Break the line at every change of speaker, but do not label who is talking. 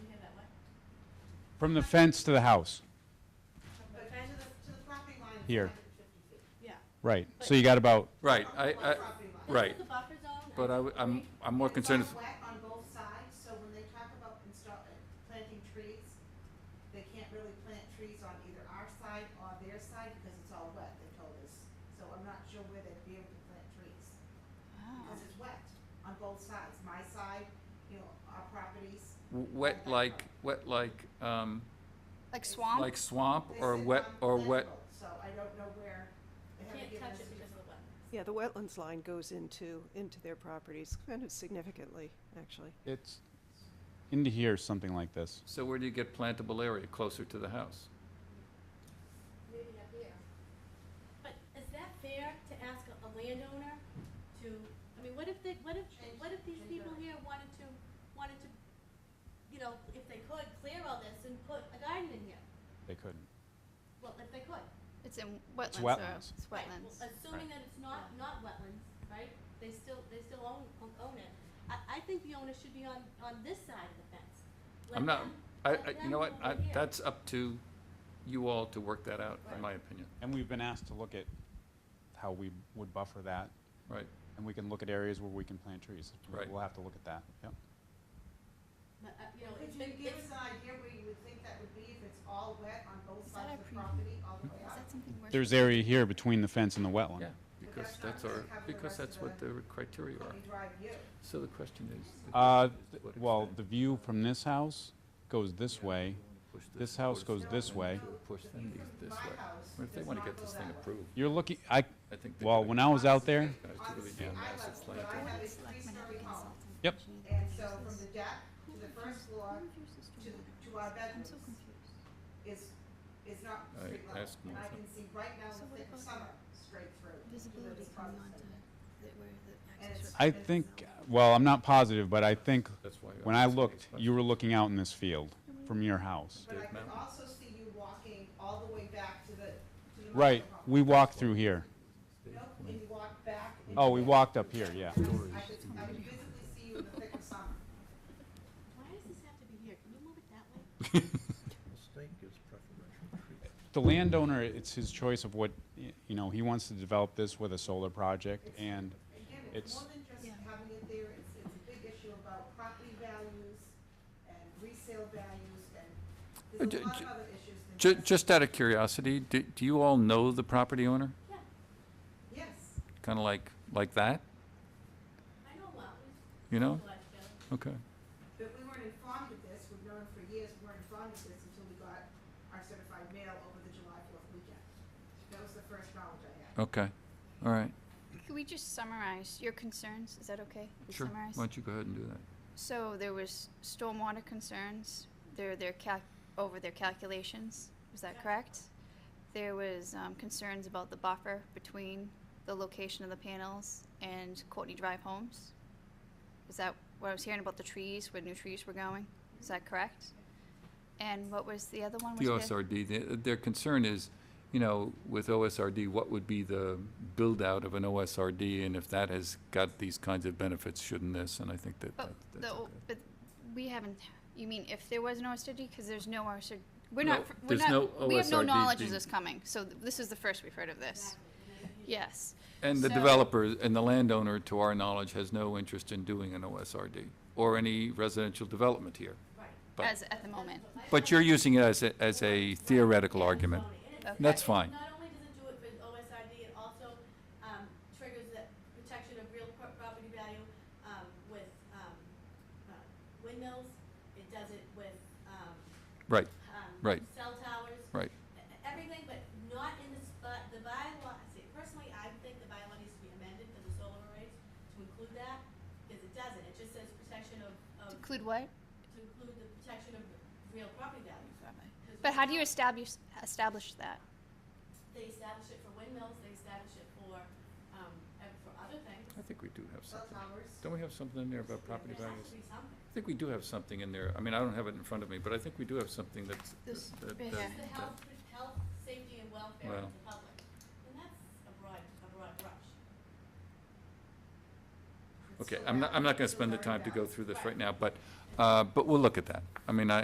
From the fence to the house,
From the fence to the, to the property line is
Here.
150 feet.
Yeah.
right. So you got about,
Right, I,
One
I,
property line.
right,
The buffer zone.
but I,
I
w- I'm, I'm more concerned,
It's on wet on both sides, so when they talk about install, planting trees, they can't really plant trees on either our side or their side because it's all wet, they told us. So I'm not sure where they'd be able to plant trees, because it's wet on both sides, my side, you know, our properties.
w- wet like, wet like, um,
Like swamp?
like swamp
They
or
said
wet,
on
or
land
wet,
boat, So I don't know where, they haven't
Can't
given
touch it
us a
because of the weather.
Yeah, the wetlands line goes into, into their properties kind of significantly, actually.
it's into here, something like this.
so where do you get plantable area closer to the house?
Maybe up here. But is that fair to ask a a landowner to, I mean, what if they, what if,
Change-
what if these
change
people
order.
here wanted to, wanted to, you know, if they could, clear all this and put a garden in here?
They couldn't.
Well, if they could.
It's in wetlands. though.
wetlands.
It's
Right, well,
wetlands.
Assuming that it's not, not wetlands, right? They still, they still own, own it. I, I think the owner should be on, on this side of the fence. Let
I'm not,
them-
I, I,
let
you
them
know what,
go
I,
over here.
that's up to you all to work that out, in my opinion,
And we've been asked to look at how we would buffer that,
right?
and we can look at areas where we can plant trees.
Right.
We'll have to look at that, yep.
But, uh, you know,
Could
it's
you
been,
give
it's-
us an idea where you would think that would be if it's all wet on both
Is that
sides
our
of the
preview?
property all the way
Is
up?
that something we're?
There's area here between the fence and the wetland.
Yeah, because
that's not
that's
gonna
our,
cover the
because
rest
that's
of
what the criteria are.
Company Drive you.
So the question is. the
Uh,
question is to
th-
what
well,
extent
the view from this house goes this way.
push
this house goes
towards them
this
and
way.
to Push
The
them
view from
these this
my
way.
house
Or if they
does
want to
not
get
go
this
that
thing
way.
approved,
You're looking, I,
I think. they're
well,
gonna-
when I was out there,
Guys,
On the
could we
sea,
do a
I
massive
love-
plan?
I have a
It's like when I
three-story
did
home.
consulting
Yep.
engineering
And so from
services.
the deck to the first floor
Who refers this
to,
wetlands?
to our
I'm
bedrooms
so confused.
is, is not
I
street level.
asked
And I
Melissa.
can see right now
So
the
what
thick of
about
summer straight through. to
Visibility
this
coming
property.
onto the, where
And
the
it's-
access.
I think, well, I'm not positive, but I think
That's why.
when I
asked these
looked, you
questions.
were looking out in this field from your house.
But I
Dave
can
Mountain.
also see you walking all the way back to the, to the.
Right,
motor home.
we walked through here.
Nope, and you walk back. and
Oh, we
you-
walked up here, yeah.
I could, I could visibly see you in the thick of summer.
why does this have to be here? Can you move it that way?
State gives preferential treatment.
The landowner, it's his choice of what, y- you know, he wants to develop this with a solar project, and
Again, it's
It's-
more than just
Yeah.
having it there, it's, it's a big issue about property values and resale values and
Uh,
there's
ju-
a lot
ju-
of other issues than
Ju-
just-
just out of curiosity, do, do you all know the property owner?
Yeah,
Yes,
Kind of like, like that,
I know well.
you know?
Well, I feel.
Okay,
but we weren't informed of this, we've known for years, we weren't informed of this until we got our certified mail over the July fourth weekend. That was the first knowledge I had.
okay, all right,
Could we just summarize your concerns? Is that okay? We
sure. Why
summarize?
don't you go ahead and do that?
So there was stormwater concerns, their, their calc, over their calculations, was that
Yeah.
correct? There was, um, concerns about the buffer between the location of the panels and Courtney Drive homes? Is that what I was hearing about the trees, where new trees were going? Is that correct? And what was the other one?
The
Was there-
OSRD, their, their concern is, you know, with OSRD, what would be the build-out of an OSRD? And if that has got these kinds of benefits, shouldn't this? And I think that,
But,
that-
Oh, the,
that's
o-
okay.
but we haven't, you mean if there was an OSRD, because there's no OSRD, we're
No,
not, fr- we're
there's no
not, we have no
OSRD
knowledge of
being-
this coming, so th- this is the first we've heard of this. Yes.
And the
So-
developer and the landowner, to our knowledge, has no interest in doing an OSRD or any residential development here. But-
As, at the moment.
But you're using it as a, as a theoretical argument.
And it's-
That's fine.
Not only does it do it with OSRD, it also um, triggers that protection of real pro- property value um, with um, uh, windmills. It does it with um,
Right,
um,
Right.
cell towers.
right.
E- Everything, but not in the, spot- the bylaw, see, personally, I think the bylaw needs to be amended for the solar arrays to include that, because it doesn't. It just says protection of, of,
To include what?
to include the protection of real property values. 'Cause
But how do you
without-
establish, establish that?
They establish it for windmills, they establish it for, um, and for other things.
I think we do have
Cell
something.
towers.
Don't we have something in there about property
There has
values?
to be something.
I think we do have something in there. I mean, I don't have it in front of me, but I think we do have something that's.
This
that-
right
that-
here.
The health, health, safety and welfare
Well.
of the public, and that's a broad, a broad brush.
It's
Okay,
still
I'm not, I'm not
valid.
gonna
It's
spend the
still very
time to go
valid.
through this right now, but, uh, but we'll look at that. I mean, I,